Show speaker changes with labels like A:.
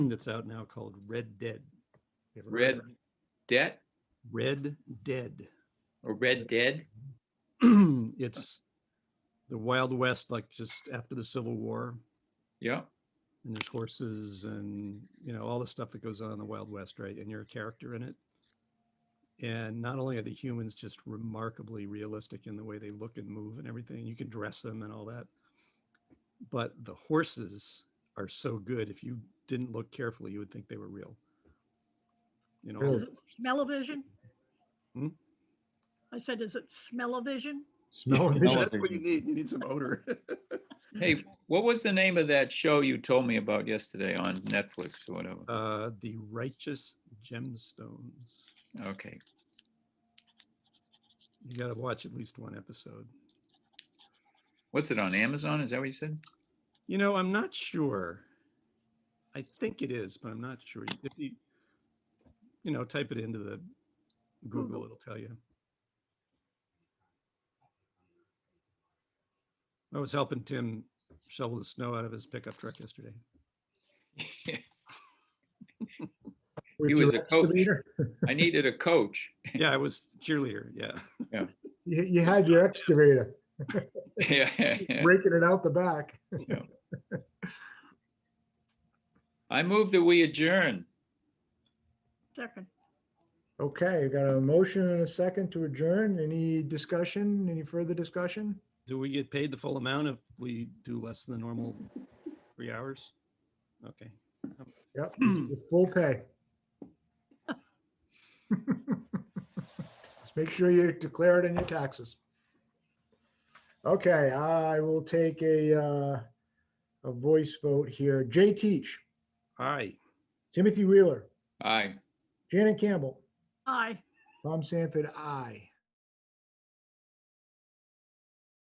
A: that's out now called Red Dead. You ever heard
B: Red
A: of it?
B: Debt
A: Red Dead.
B: or Red Dead?
A: It's the Wild West, like just after the Civil War.
B: Yeah.
A: And there's horses and, you know, all the stuff that goes on in the Wild West, right? And you're a character in it. And not only are the humans just remarkably realistic in the way they look and move and everything, you can dress them and all that. But the horses are so good. If you didn't look carefully, you would think they were real. You know, all
C: Really?
A: the
D: Smell-o-vision?
A: Hmm?
D: I said, is it smell-o-vision?
C: Smell
A: Yeah,
C: vision.
A: That's what you need. You need some odor.
B: Hey, what was the name of that show you told me about yesterday on Netflix or whatever?
A: Uh, the righteous gemstones.
B: Okay.
A: You got to watch at least one episode.
B: What's it on Amazon? Is that what you said?
A: You know, I'm not sure. I think it is, but I'm not sure. If you, you know, type it into the Google,
D: Google.
A: it'll tell you. I was helping Tim shovel the snow out of his pickup truck yesterday.
C: With
B: He was
C: your
B: a coach.
C: excavator?
B: I needed a coach.
A: Yeah, I was cheerleader. Yeah.
C: You, you had your excavator,
B: Yeah, yeah, yeah.
C: breaking it out the back.
B: I move that we adjourn.
D: Second.
C: Okay, we got a motion and a second to adjourn. Any discussion? Any further discussion?
A: Do we get paid the full amount if we do less than the normal three hours? Okay.
C: Yep, the full pay. Just make sure you declare it in your taxes. Okay, I will take a, uh, a voice vote here. Jay Teach,
A: All right.
C: Timothy Wheeler,
B: Aye.
C: Janet Campbell,
D: Aye.
C: Tom Sanford, aye.